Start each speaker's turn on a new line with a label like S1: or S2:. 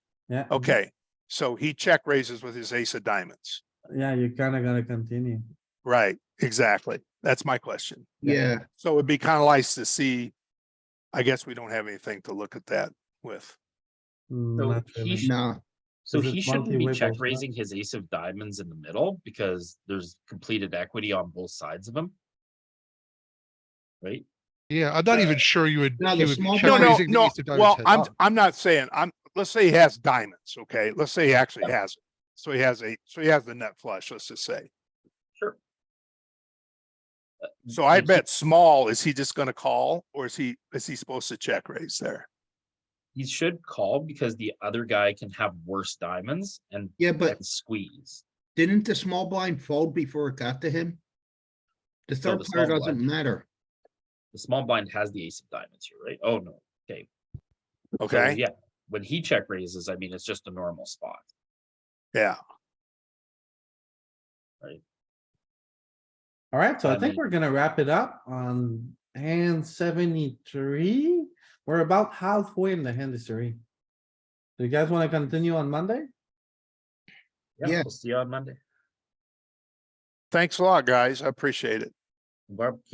S1: yeah.
S2: Okay, so he check raises with his ace of diamonds.
S1: Yeah, you kinda gotta continue.
S2: Right, exactly. That's my question.
S3: Yeah,
S2: So it'd be kind of nice to see. I guess we don't have anything to look at that with.
S1: Mm,
S4: So
S1: not
S4: he
S1: really.
S4: sh-
S3: no,
S4: So
S1: Is it
S4: he shouldn't be
S1: multi-way
S4: check
S1: both sides?
S4: raising his ace of diamonds in the middle because there's completed equity on both sides of him. Right?
S5: Yeah, I'm not even sure you would.
S3: No, the
S5: you would be
S3: small
S5: check
S2: No,
S3: blind-
S2: no,
S5: raising the
S2: no.
S5: ace of diamonds
S2: Well,
S5: heads
S2: I'm,
S5: up.
S2: I'm not saying, I'm, let's say he has diamonds, okay? Let's say he actually has. it. So he has a, so he has the nut flush, let's just say.
S4: Sure.
S5: Mm,
S2: So I
S4: Like Uh, he-
S2: bet small, is he just gonna call or is he, is he supposed to check raise there?
S4: He should call because the other guy can have worse diamonds and
S3: yeah, but
S4: and squeeze.
S3: didn't the small blind fold before it got to him? The
S4: So
S3: third
S4: the
S3: player
S4: small
S3: doesn't
S4: blind-
S3: matter.
S4: The small blind has the ace of diamonds here, right? Oh, no. So,
S2: Okay,
S4: Yeah, when he check raises, I mean, it's just a normal spot.
S2: yeah,
S1: Alright, so I
S4: I
S1: think
S4: mean-
S1: we're gonna wrap it up on hand seventy-three. We're about halfway in the hand history. Do you guys wanna continue on Monday?
S4: Yeah,
S3: Yeah.
S4: we'll see you on Monday.
S2: thanks a lot, guys. I appreciate it.
S4: Barb,